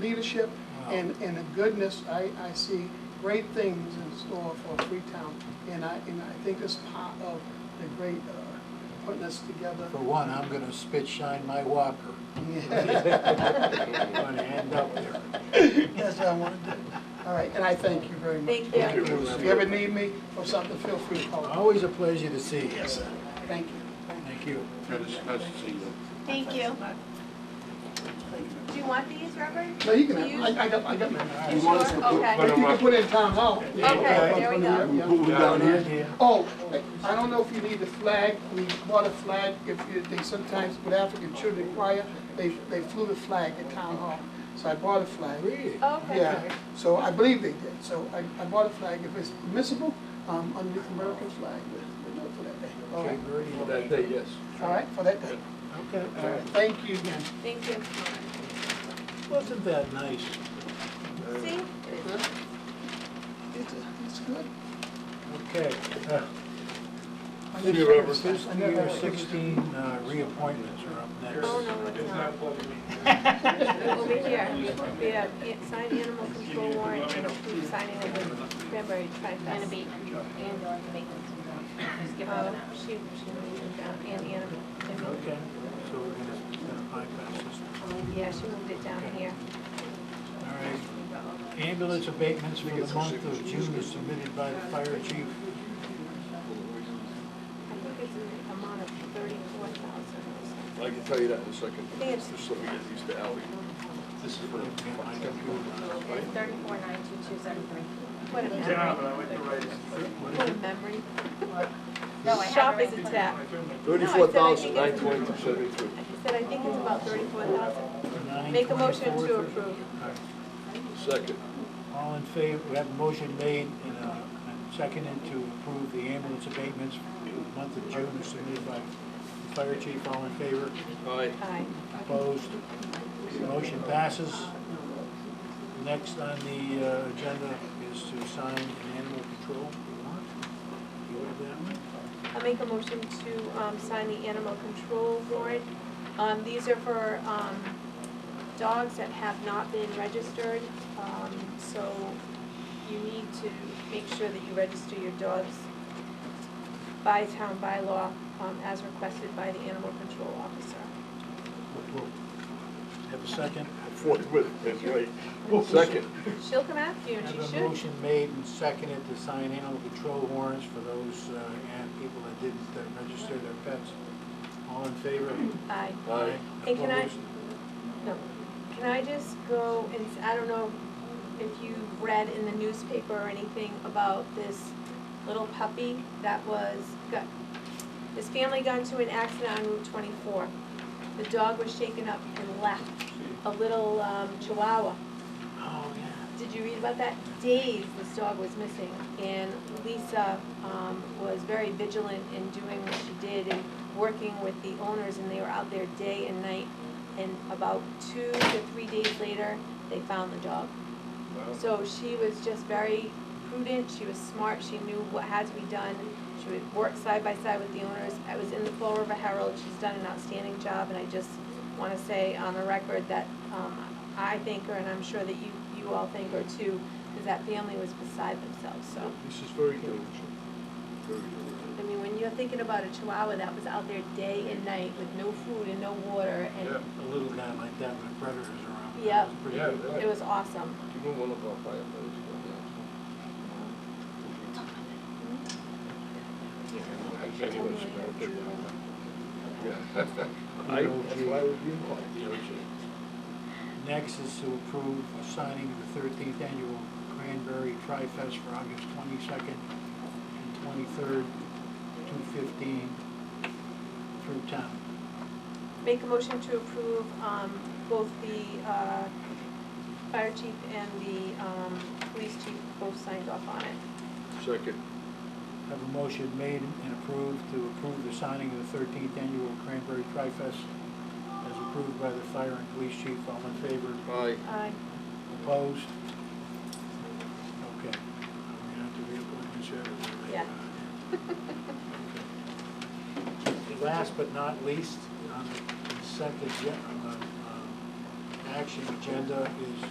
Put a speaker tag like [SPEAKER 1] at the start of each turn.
[SPEAKER 1] leadership and, and the goodness. I, I see great things in store for Freetown. And I, and I think it's part of the great, uh, putting us together.
[SPEAKER 2] For one, I'm gonna spit shine my walker. I'm gonna end up there.
[SPEAKER 1] That's what I want to do. All right, and I thank you very much.
[SPEAKER 3] Thank you.
[SPEAKER 2] Thank you. Oh.
[SPEAKER 1] If you ever need me for something, feel free to call.
[SPEAKER 2] Always a pleasure to see you.
[SPEAKER 1] Yes, sir. Thank you.
[SPEAKER 2] Thank you.
[SPEAKER 4] Nice nice to see you.
[SPEAKER 3] Thank you. Do you want these, Robert?
[SPEAKER 1] No, you can have, I, I got, I got my.
[SPEAKER 4] You want us to put-
[SPEAKER 3] Okay.
[SPEAKER 4] put
[SPEAKER 1] But
[SPEAKER 4] them
[SPEAKER 1] you can
[SPEAKER 4] up?
[SPEAKER 1] put it in town hall.
[SPEAKER 3] Okay, there we go.
[SPEAKER 4] Who we got
[SPEAKER 2] Down
[SPEAKER 4] here?
[SPEAKER 2] in here.
[SPEAKER 1] Oh, I don't know if you need the flag, we bought a flag, if you, they sometimes, with African children choir, they, they flew the flag at town hall, so I bought a flag.
[SPEAKER 2] Really?
[SPEAKER 3] Oh. Okay.
[SPEAKER 1] Yeah, so I believe they did, so I, I bought a flag, if it's permissible, um, under the American flag, we'll do it for that day. All
[SPEAKER 2] Okay,
[SPEAKER 1] right,
[SPEAKER 2] very well.
[SPEAKER 4] That day, yes.
[SPEAKER 1] all right, for that day.
[SPEAKER 2] Okay, all
[SPEAKER 1] All right,
[SPEAKER 2] right.
[SPEAKER 1] thank you again.
[SPEAKER 3] Thank you.
[SPEAKER 2] Wasn't that nice?
[SPEAKER 3] See?
[SPEAKER 1] It's, it's good.
[SPEAKER 2] Okay. uh,
[SPEAKER 1] I
[SPEAKER 4] See you,
[SPEAKER 1] never-
[SPEAKER 4] Robert.
[SPEAKER 1] I never-
[SPEAKER 2] Fiscal year sixteen uh, reappointments are up next.
[SPEAKER 3] Oh, no, it's not. Over here, we have an- signed animal control warrant and approved signing of the Cranberry
[SPEAKER 5] And
[SPEAKER 3] Tri-Fest.
[SPEAKER 5] abatement, and or abatement, just give
[SPEAKER 3] Uh,
[SPEAKER 5] them an
[SPEAKER 3] She, she moved it down, and animal.
[SPEAKER 2] Okay, so we're gonna gonna bypass this. one.
[SPEAKER 3] Yeah, she moved it down here.
[SPEAKER 2] All right. Ambulance abatements for the month of June is submitted by the fire chief.
[SPEAKER 3] I think it's an amount of thirty-four thousand.
[SPEAKER 4] I can tell you that in a second.
[SPEAKER 3] I think it's-
[SPEAKER 4] Just so we get used to Ally. This is for.
[SPEAKER 2] My computer.
[SPEAKER 5] abatement. It's thirty-four nine two two seven three.
[SPEAKER 3] What a
[SPEAKER 6] Yeah,
[SPEAKER 3] memory.
[SPEAKER 6] but I went to write it.
[SPEAKER 3] What a memory.
[SPEAKER 5] No, I have
[SPEAKER 3] Shop
[SPEAKER 5] it
[SPEAKER 3] is
[SPEAKER 5] right in front
[SPEAKER 3] attacked.
[SPEAKER 4] Thirty-four thousand, nine twenty-two, seventy-two.
[SPEAKER 3] I said, I think it's about thirty-four thousand.
[SPEAKER 2] Nine
[SPEAKER 3] Make a motion to
[SPEAKER 2] 24.
[SPEAKER 3] approve.
[SPEAKER 4] Second.
[SPEAKER 2] All in favor, we have a motion made and uh, and seconded to approve the ambulance abatements for the month of June as submitted by the fire chief. All in favor?
[SPEAKER 4] Aye.
[SPEAKER 3] Aye.
[SPEAKER 2] Opposed? Motion passes. Next on the uh, agenda is to sign an animal control warrant. You have that one?
[SPEAKER 3] I'll make a motion to um, sign the animal control warrant. Um, These are for um, dogs that have not been registered, Um, so you need to make sure that you register your dogs by town by law um, as requested by the animal control officer.
[SPEAKER 2] Have a second?
[SPEAKER 4] Forty-with, that's right. Second.
[SPEAKER 3] She'll come after you, and she
[SPEAKER 2] Have a
[SPEAKER 3] should.
[SPEAKER 2] motion made and seconded to sign animal control warrants for those uh, and people that didn't uh, register their pets. All in favor?
[SPEAKER 3] Aye.
[SPEAKER 4] Aye.
[SPEAKER 3] And can I-
[SPEAKER 2] Opposed?
[SPEAKER 3] No. Can I just go and, s- I don't know if you've read in the newspaper or anything about this little puppy that was, got, this family got into an accident on Route twenty-four. The dog was shaken up and left, a little, um, chihuahua.
[SPEAKER 2] Oh, yeah.
[SPEAKER 3] Did you read about that? Days this dog was missing, and Lisa um, was very vigilant in doing what she did and working with the owners, and they were out there day and night. And about two to three days later, they found the dog. So she was just very prudent, she was smart, she knew what had to be done. She would work side by side with the owners. I was in the Fall River Herald, she's done an outstanding job, and I just want to say on the record that um, I thank her, and I'm sure that you, you all thank her too, because that family was beside themselves, so.
[SPEAKER 4] This is very diligent. Very diligent.
[SPEAKER 3] I mean, when you're thinking about a chihuahua that was out there day and night with no food and no water, and
[SPEAKER 2] A little guy like that with predators around.
[SPEAKER 3] Yeah.
[SPEAKER 2] It's pretty
[SPEAKER 4] Yeah,
[SPEAKER 2] good.
[SPEAKER 4] that-
[SPEAKER 3] it was awesome.
[SPEAKER 4] You know one of our firefighters. I, that's why I was being called.
[SPEAKER 2] Next is to approve a signing of the thirteenth annual Cranberry Tri-Fest for August twenty-second and twenty-third, two fifteen, through town.
[SPEAKER 3] Make a motion to approve um, both the uh, fire chief and the um, police chief both signed off on it.
[SPEAKER 4] Second.
[SPEAKER 2] Have a motion made and approved to approve the signing of the thirteenth annual Cranberry Tri-Fest as approved by the fire and police chief. All in favor?
[SPEAKER 4] Aye.
[SPEAKER 3] Aye.
[SPEAKER 2] Opposed? Okay. We're gonna have to reappoint Ms. Everett.
[SPEAKER 3] Yeah.
[SPEAKER 2] Okay. Last but not least, on the consent uh, agenda, on the, um, action agenda is